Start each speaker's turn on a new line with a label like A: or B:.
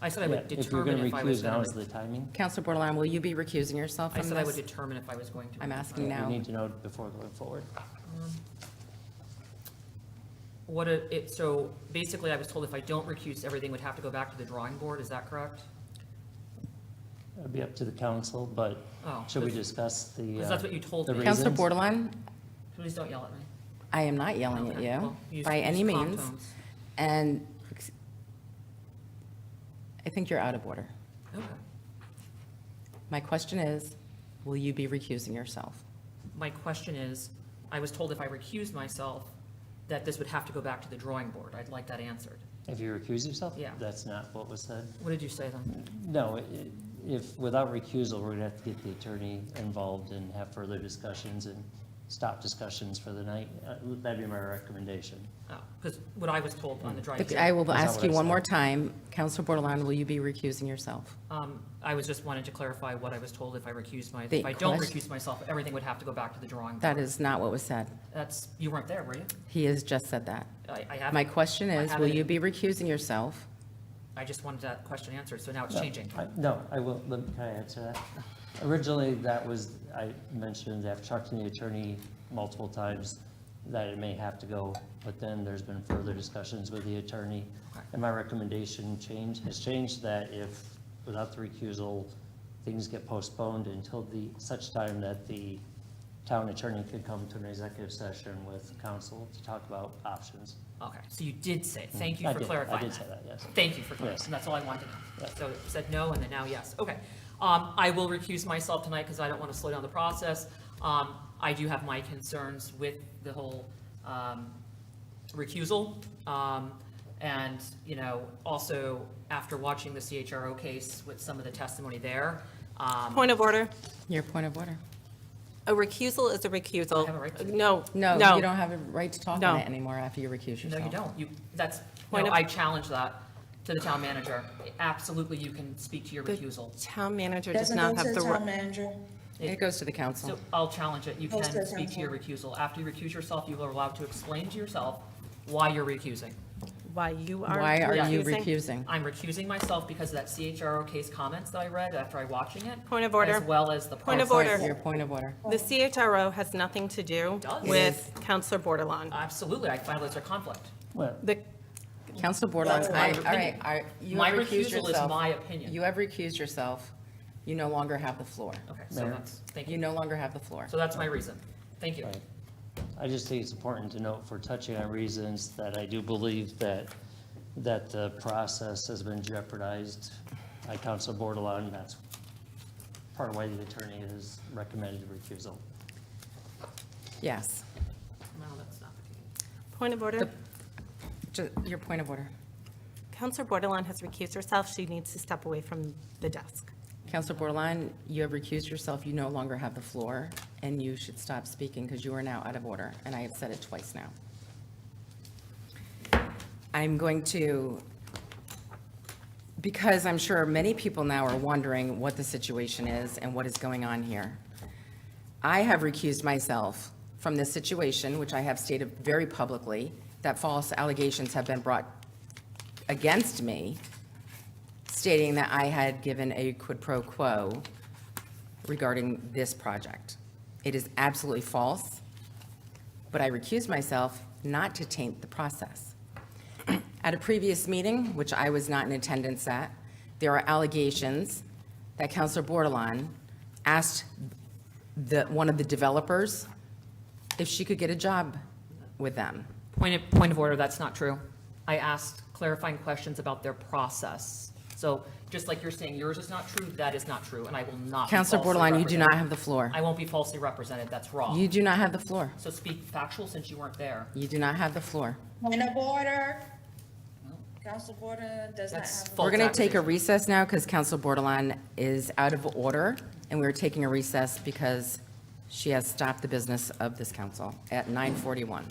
A: I said I would
B: If you're
A: determine
B: going
A: if
B: to
A: I was
B: recuse, now
A: going
B: is
A: to,
B: the timing.
C: Counselor Bordelon, will you be recusing yourself
A: I
C: from
A: said I would
C: this?
A: determine if I was going to.
C: I'm asking
B: We
C: now.
B: need to know before going forward.
A: What, a- it, so basically I was told if I don't recuse, everything would have to go back to the drawing board, is that correct?
B: It'd be up to the council, but
A: Oh.
B: should we discuss the?
A: Because that's what you told
B: the
A: me.
C: Counselor
B: reasons?
C: Bordelon,
A: Please don't yell at me.
C: I am not yelling at
A: Okay,
C: you
A: well, use-
C: by any
A: use calm
C: means.
A: tones.
C: And I think you're out of order.
A: Okay.
C: My question is, will you be recusing yourself?
A: My question is, I was told if I recused myself, that this would have to go back to the drawing board. I'd like that answered.
B: uh, If you recuse yourself?
A: Yeah.
B: That's not what was said.
A: What did you say then?
B: No, i- if, without recusal, we're gonna have to get the attorney involved and have further discussions and stop discussions for the night. Uh, That'd be my recommendation.
A: Because Oh, what I was told on the drawing
C: Look, I
A: board,
C: will
B: That's not
C: ask
B: what
C: you
B: I
C: one more
B: said.
C: time. Counselor Bordelon, will you be recusing yourself?
A: um, I was just wanted to clarify what I was told if I recused my,
C: The
A: if I don't
C: question-
A: recuse myself, everything would have to go back to the drawing board.
C: That is not what was said.
A: That's, you weren't there, were you?
C: He has just said that.
A: I, I have.
C: My question
A: I
C: is,
A: have
C: will
A: it.
C: you be recusing yourself?
A: I just wanted that question answered, so now it's
B: No,
A: changing.
B: I- No, I will, let me- can I answer that? Originally, that was, I mentioned, I've talked to the attorney multiple times that it may have to go, but then there's been further discussions with the attorney.
A: Okay.
B: And my recommendation change, has changed that if, without the recusal, things get postponed until the, such time that the town attorney could come to an executive session with council to talk about options.
A: Okay, so you did say, thank you
B: Mm. I
A: for
B: did-
A: clarifying
B: I did
A: that.
B: say that, yes.
A: Thank you for clarifying,
B: Yes.
A: and that's all I wanted.
B: Yeah.
A: So it said no, and then now yes, okay. Um, I will recuse myself tonight because I don't want to slow down the process. Um, I do have my concerns with the whole, um, recusal. Um, and, you know, also after watching the CHRO case with some of the testimony there, um,
D: Point of order.
C: Your point of order.
D: A recusal is a recusal. Uh,
A: I have a right to-
D: No,
C: No,
D: no.
C: you don't have a right to talk
D: No.
C: on it anymore after you recuse yourself.
A: No, you don't. You, that's,
D: Point
A: no,
D: of-
A: I challenge that to the town manager. Absolutely, you can speak to your recusal.
D: Town manager does
E: Doesn't
D: not
E: go to
D: have
E: the
D: the
E: town
D: right.
E: manager.
C: It goes to the council.
A: So I'll challenge it. You can
E: Post it,
A: speak to your recusal. After you recuse yourself, you are allowed to explain to yourself why you're recusing.
D: Why you are.
C: Why are you
D: recusing.
C: recusing?
A: I'm recusing myself because of that CHRO case comments that I read after I watching it.
D: Point of order.
A: As well as the.
D: Point of
A: parts-
D: order.
C: Your point of order.
D: The CHRO has nothing to do
A: does.
D: with Counselor Bordelon.
A: Absolutely. I find those are conflict.
B: Well,
D: The,
C: Counselor Bordelon, I, all
A: opinion.
C: right, I- you
A: My
C: have recused
A: recusal is
C: yourself.
A: my opinion.
C: You have recused yourself. You no longer have the floor.
A: Okay, so
B: Mayor.
A: that's, thank
C: You
A: you.
C: no longer have the floor.
A: So that's my reason. Thank you.
B: Right. I just think it's important to note for touching on reasons that I do believe that, that the process has been jeopardized by Council Bordelon. That's part of why the attorney has recommended recusal.
C: Yes.
A: No, that's not the case.
D: point of order.
C: Ju- Your point of order.
D: Counselor Bordelon has recused herself. She needs to step away from the desk.
C: Counselor Bordelon, you have recused yourself. You no longer have the floor, and you should stop speaking because you are now out of order, and I have said it twice now. I'm going to, because I'm sure many people now are wondering what the situation is and what is going on here. I have recused myself from this situation, which I have stated very publicly, that false allegations have been brought against me stating that I had given a quid pro quo regarding this project. It is absolutely false, but I recused myself not to taint the process. At a previous meeting, which I was not in attendance at, there are allegations that Counselor Bordelon asked the, one of the developers if she could get a job with them.
A: Point of, point of order, that's not true. I asked clarifying questions about their process. So just like you're saying yours is not true, that is not true, and I will not be
C: Counselor
A: falsely
C: Bordelon, you do not
A: represented.
C: have the floor.
A: I won't be falsely represented, that's
C: You
A: wrong.
C: do not have the floor.
A: So speak factual since you weren't there.
C: You do not have the floor.
E: Point of order. Council Border does not
A: That's
E: have.
A: false.
C: We're going to take a
A: accusation.
C: recess now because Council Bordelon is out of order, and we're taking a recess because she has stopped the business of this council at 9:41.